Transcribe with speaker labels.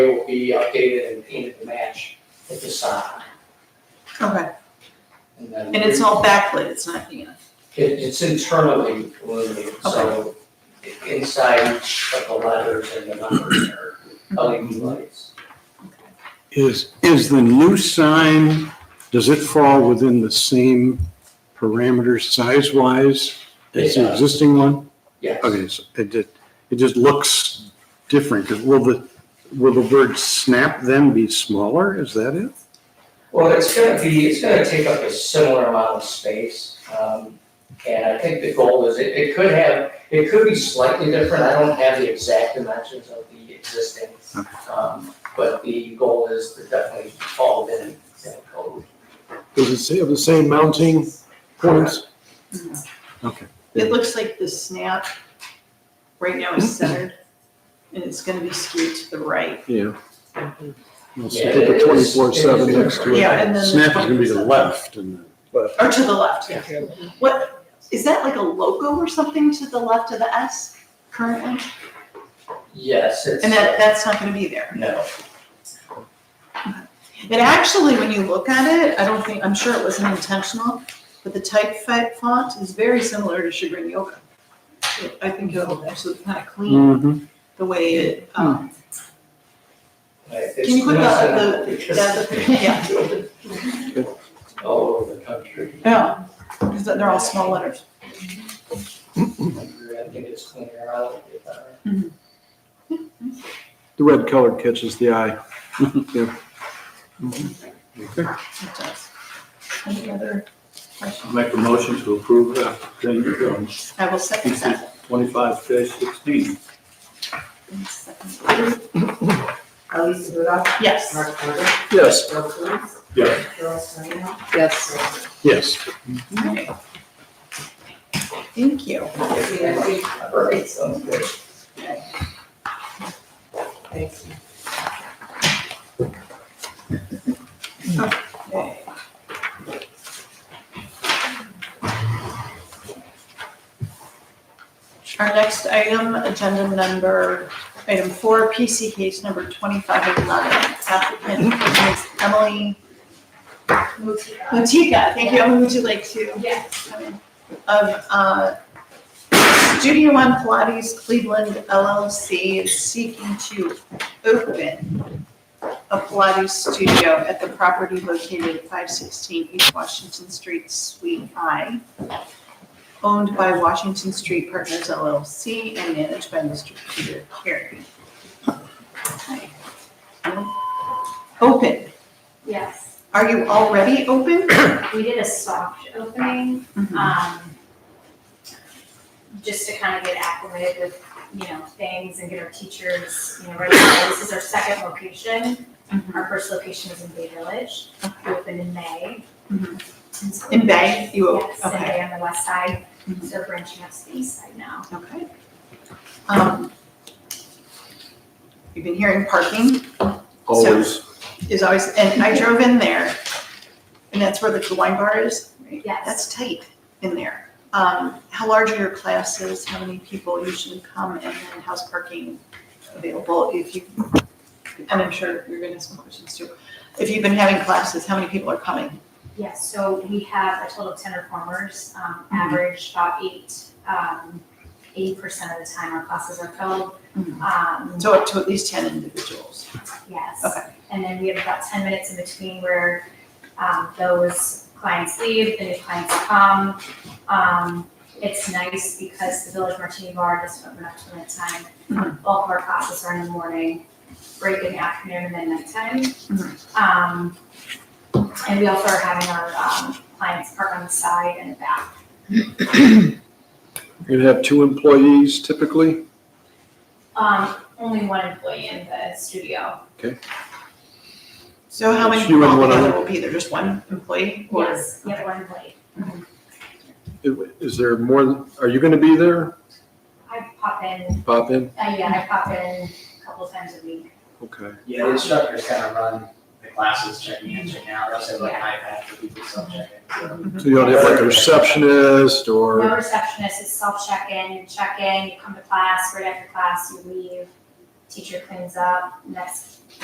Speaker 1: It will be updated and painted to match the facade.
Speaker 2: Okay,
Speaker 1: And then-
Speaker 2: and it's all backlit, it's not, you know,
Speaker 1: It, it's internally illuminated, so inside each of the letters and the numbers are LED lights.
Speaker 3: Is, is the new sign, does it fall within the same parameters size-wise as
Speaker 1: Yeah.
Speaker 3: the existing one?
Speaker 1: Yes.
Speaker 3: Okay, so it, did- it just looks different, 'cause will the, will the word snap then be smaller? Is that it?
Speaker 1: Well, it's gonna be, it's gonna take up a similar amount of space. Um, and I think the goal is, it, it could have, it could be slightly different. I don't have the exact dimensions of the existing. Um, but the goal is to definitely fall within that code.
Speaker 3: Does it say, have the same mounting points?
Speaker 2: it looks like the snap right now is centered and it's gonna be skewed to the right.
Speaker 3: Yeah. We'll see,
Speaker 1: Yeah,
Speaker 3: put
Speaker 1: it
Speaker 3: the
Speaker 1: is-
Speaker 3: twenty-four
Speaker 1: it
Speaker 3: seven
Speaker 1: is
Speaker 3: next to it.
Speaker 2: Yeah, and then. the
Speaker 3: Snap is gonna be the
Speaker 2: 27.
Speaker 3: left and the,
Speaker 2: Or to the left, yeah. What, is that like a logo or something to the left of the S currently?
Speaker 1: Yes, it's,
Speaker 2: And
Speaker 4: uh,
Speaker 2: that, that's not gonna be there.
Speaker 1: no,
Speaker 2: It actually, when you look at it, I don't think, I'm sure it wasn't intentional, but the typeface font is very similar to Sugar and Yoga. I think it'll actually kind of clean
Speaker 3: Mhm.
Speaker 2: the way it, um,
Speaker 1: Like, it's
Speaker 2: Can you put the-
Speaker 1: coincidental
Speaker 2: the-
Speaker 1: because
Speaker 2: the- the- yeah.
Speaker 1: they do it All over the country.
Speaker 2: yeah, because they're all small letters.
Speaker 1: I think it's cleaner out. if I-
Speaker 3: the red color catches the eye. Yeah. Okay.
Speaker 2: It does. Any other questions?
Speaker 5: Make a motion to approve that thing from
Speaker 2: I will second that.
Speaker 5: twenty-five sixteen.
Speaker 6: Alisa Rudolph.
Speaker 2: Yes,
Speaker 6: Mark Carter.
Speaker 3: Yes.
Speaker 6: Bill Coontz.
Speaker 5: Yes.
Speaker 6: Carol Serena.
Speaker 7: Yes.
Speaker 3: Yes.
Speaker 2: thank you.
Speaker 1: All right, sounds good.
Speaker 6: Thank you.
Speaker 2: Our next item, agenda number, item four, PC case number twenty-five eleven, applicant is Emily Mutika, thank you, Emily, would you like to? Yes. Of, uh, Studio One Pilates Cleveland LLC is seeking to open a Pilates studio at the property located at five sixteen East Washington Street, Suite I owned by Washington Street Partners LLC and managed by Mr. Peter Carey. Okay. Open,
Speaker 8: Yes,
Speaker 2: are you already open?
Speaker 8: we did a soft opening,
Speaker 2: Hmm.
Speaker 8: um, just to kind of get acclimated with, you know, things and get our teachers, you know, ready. This is our second location.
Speaker 2: Mhm.
Speaker 8: Our first location was in Bay Village, we opened in May.
Speaker 2: Mhm.
Speaker 8: And so-
Speaker 2: In Bay, you, op-
Speaker 8: Yes, in
Speaker 2: okay,
Speaker 8: Bay on the west side,
Speaker 2: Mhm.
Speaker 8: so we're branching out to the east side now.
Speaker 2: okay. Um, You've been hearing parking
Speaker 5: Always.
Speaker 2: is always, and I drove in there, and that's where the the wine bar is, right?
Speaker 8: Yes.
Speaker 2: That's tight in there. Um, How large are your classes, how many people usually come, and then how's parking available if you, and I'm sure you're gonna have some questions too. If you've been having classes, how many people are coming?
Speaker 8: Yes, so we have a total of ten performers, um, average about eight, um, eighty percent of the time our classes are filled.
Speaker 2: Mhm.
Speaker 8: Um,
Speaker 2: So up to at least ten individuals.
Speaker 8: Yes.
Speaker 2: Okay.
Speaker 8: And then we have about ten minutes in between where, um, those clients leave, the new clients come. Um, it's nice because the Village Martini Bar doesn't open up till nighttime.
Speaker 2: Mhm.
Speaker 8: All of our classes are in the morning, break in the afternoon and then nighttime.
Speaker 2: Mm-hmm.
Speaker 8: Um, and we also are having our, um, clients park on the side and the back.
Speaker 3: You have two employees typically?
Speaker 8: Um, only one employee in the studio.
Speaker 2: So how many
Speaker 3: It's you
Speaker 2: people
Speaker 3: and one other.
Speaker 2: altogether will be there, just one employee? or-
Speaker 8: Yes, we have one employee.
Speaker 3: Is there more, than- are you going to be there?
Speaker 8: I pop in,
Speaker 3: Pop in?
Speaker 8: uh, yeah, I pop in a couple times a week.
Speaker 3: Okay.
Speaker 4: Yeah, the instructors kind of run the classes, checking in, checking out, they also have like an iPad for people to self-check in, so.
Speaker 3: So you don't have like a receptionist
Speaker 8: No
Speaker 3: or,
Speaker 8: receptionist, it's self-check-in, you check in, you come to class, right after class, you leave. teacher cleans up, next